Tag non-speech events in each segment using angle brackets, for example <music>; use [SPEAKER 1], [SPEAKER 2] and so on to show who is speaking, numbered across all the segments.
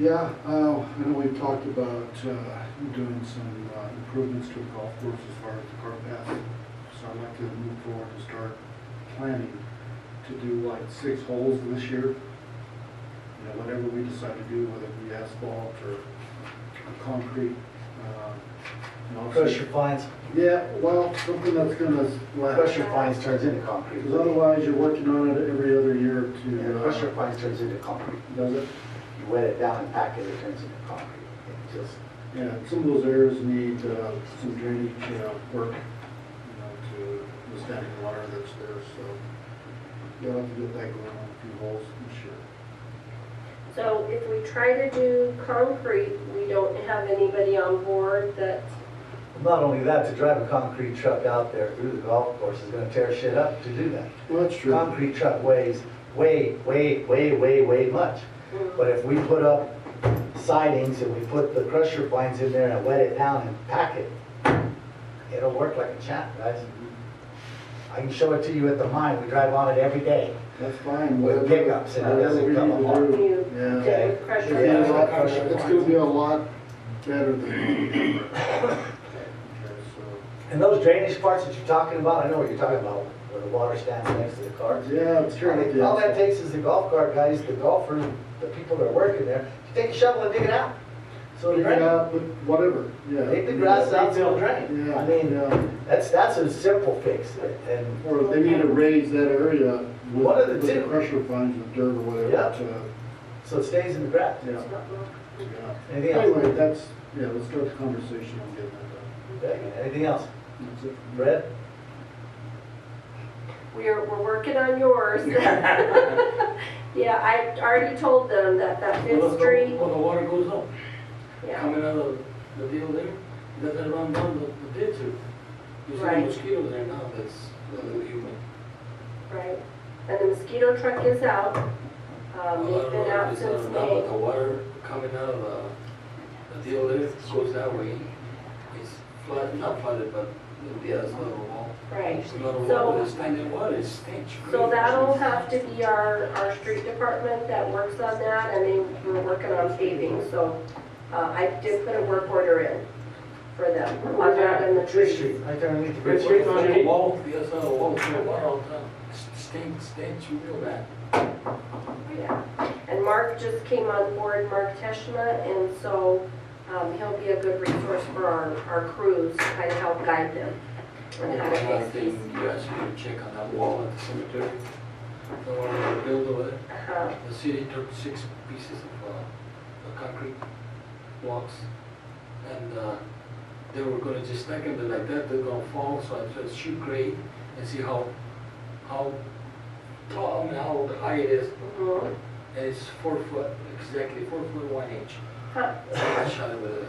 [SPEAKER 1] Yeah, uh, I know we've talked about, uh, doing some uh, improvements to the golf course as far as the cart path. So I'd like to move forward and start planning to do like six holes this year. You know, whatever we decide to do, whether it be asphalt or concrete, uh, and also.
[SPEAKER 2] Crusher fines,
[SPEAKER 1] Yeah, well, something that's gonna last,
[SPEAKER 2] crusher fines turns into concrete.
[SPEAKER 1] because otherwise you're working on it every other year
[SPEAKER 2] Yeah,
[SPEAKER 1] to,
[SPEAKER 2] Crusher
[SPEAKER 1] uh,
[SPEAKER 2] fines turns into concrete.
[SPEAKER 1] does it?
[SPEAKER 2] You wet it down and pack it, it turns into concrete. It just,
[SPEAKER 1] Yeah, some of those areas need uh, some drainage uh, work, you know, to withstand the water that's there, so you'll have to get that going on a few holes this year.
[SPEAKER 3] So if we try to do concrete, we don't have anybody on board that,
[SPEAKER 2] not only that, to drive a concrete truck out there through the golf course is gonna tear shit up to do that.
[SPEAKER 1] Well, that's true.
[SPEAKER 2] Concrete truck weighs way, way, way, way, way much.
[SPEAKER 3] mm,
[SPEAKER 2] But if we put up sidings and we put the crusher fines in there and wet it down and pack it, it'll work like a champ, guys. I can show it to you at the mine, we drive on it every day.
[SPEAKER 1] That's fine.
[SPEAKER 2] With pickups, and it doesn't come apart.
[SPEAKER 3] you
[SPEAKER 1] Yeah.
[SPEAKER 3] did with
[SPEAKER 1] It's
[SPEAKER 3] pressure.
[SPEAKER 1] gonna be a lot-
[SPEAKER 2] Yeah.
[SPEAKER 1] it's gonna be a lot better than.
[SPEAKER 2] <coughs>
[SPEAKER 1] Okay,
[SPEAKER 2] And those drainage parts that you're talking about, I know what you're talking about, where the water stands next to the
[SPEAKER 1] so,
[SPEAKER 2] cars.
[SPEAKER 1] Yeah, it's
[SPEAKER 2] I
[SPEAKER 1] kind
[SPEAKER 2] mean, All that
[SPEAKER 1] of,
[SPEAKER 2] takes is the golf cart guys, the golfers, the people that are working there, you take a shovel and dig it out. So it'll drain.
[SPEAKER 1] yeah, but whatever, yeah.
[SPEAKER 2] Dig the grass out, so it'll drain.
[SPEAKER 1] Yeah,
[SPEAKER 2] I mean,
[SPEAKER 1] yeah.
[SPEAKER 2] that's, that's a simple fix, and
[SPEAKER 1] Or they need to raise that area with
[SPEAKER 2] One of the
[SPEAKER 1] with the
[SPEAKER 2] two.
[SPEAKER 1] pressure funds and dirt or whatever. uh,
[SPEAKER 2] Yeah.
[SPEAKER 1] to-
[SPEAKER 2] so it stays in the grass.
[SPEAKER 1] Yeah. yeah.
[SPEAKER 2] Anything else?
[SPEAKER 1] Anyway, that's, yeah, let's start the conversation on getting that
[SPEAKER 2] Okay, Anything else?
[SPEAKER 1] done. That's it.
[SPEAKER 2] Brett?
[SPEAKER 3] We're, we're working on
[SPEAKER 4] <laughs>
[SPEAKER 3] yours. Yeah, I already told them that that Fifth Street,
[SPEAKER 4] Well, the water goes up,
[SPEAKER 3] yeah,
[SPEAKER 4] coming out of the deal there, doesn't run down the, the ditch or, you see
[SPEAKER 3] Right.
[SPEAKER 4] the mosquito there now, that's, uh, human.
[SPEAKER 3] right. And the mosquito truck is out. Um, they've been out
[SPEAKER 4] It's, uh,
[SPEAKER 3] since
[SPEAKER 4] now
[SPEAKER 3] May.
[SPEAKER 4] with the water coming out of, uh, the deal there, goes that way, it's flooded, not flooded, but, yeah, it's not a wall.
[SPEAKER 3] Right.
[SPEAKER 4] It's not a
[SPEAKER 3] So-
[SPEAKER 4] wall, but it's standing water, it stinks.
[SPEAKER 3] So that'll have to be our, our street department that works on that, and they were working on paving, so uh, I did put a work order in for them, on that and the trees.
[SPEAKER 2] I turn it to
[SPEAKER 4] It's
[SPEAKER 2] Richard.
[SPEAKER 4] not a wall, yeah, it's not a wall, it's not a wall all the time, It stinks, stinks real bad.
[SPEAKER 3] Yeah. And Mark just came on board, Mark Teshma, and so um, he'll be a good resource for our, our crews, to kind of help guide them. on how to
[SPEAKER 4] Another
[SPEAKER 3] fix these.
[SPEAKER 4] thing, you guys need to check on that wall at the cemetery, the one that they built over there.
[SPEAKER 3] Uh-huh.
[SPEAKER 4] The city took six pieces of, uh, uh, concrete blocks, and, uh, they were gonna just stack them like that, they're gonna fall, so I just shoot grade and see how, how tall and how high it is,
[SPEAKER 3] Mhm.
[SPEAKER 4] and it's four foot, exactly four foot one inch.
[SPEAKER 3] Huh.
[SPEAKER 4] I shot it with a,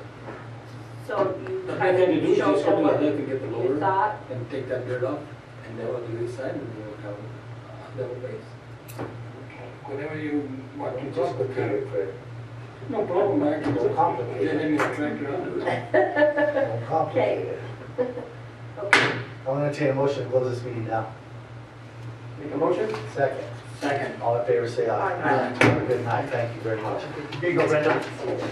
[SPEAKER 3] So you
[SPEAKER 4] the
[SPEAKER 3] kind
[SPEAKER 4] thing to do
[SPEAKER 3] of
[SPEAKER 4] is
[SPEAKER 3] showed
[SPEAKER 4] just
[SPEAKER 3] them
[SPEAKER 4] something like
[SPEAKER 3] what
[SPEAKER 4] that to get the
[SPEAKER 3] you
[SPEAKER 4] loader
[SPEAKER 3] thought.
[SPEAKER 4] and take that dirt off, and they will do this side, and they will have a level Uh, base. Whenever you want to
[SPEAKER 2] It's
[SPEAKER 4] just
[SPEAKER 2] complicated, Fred.
[SPEAKER 4] No problem, I can
[SPEAKER 2] It's
[SPEAKER 4] go.
[SPEAKER 2] complicated.
[SPEAKER 4] Get any tractor on it.
[SPEAKER 2] It's <laughs> complicated.
[SPEAKER 3] Okay.
[SPEAKER 2] I'm gonna take a motion to close this meeting now.
[SPEAKER 4] Make a motion?
[SPEAKER 2] Second.
[SPEAKER 4] Second.
[SPEAKER 2] All in favor, say aye.
[SPEAKER 3] Aye.
[SPEAKER 2] Have a Good night, thank you very much. Here you go, Brenda.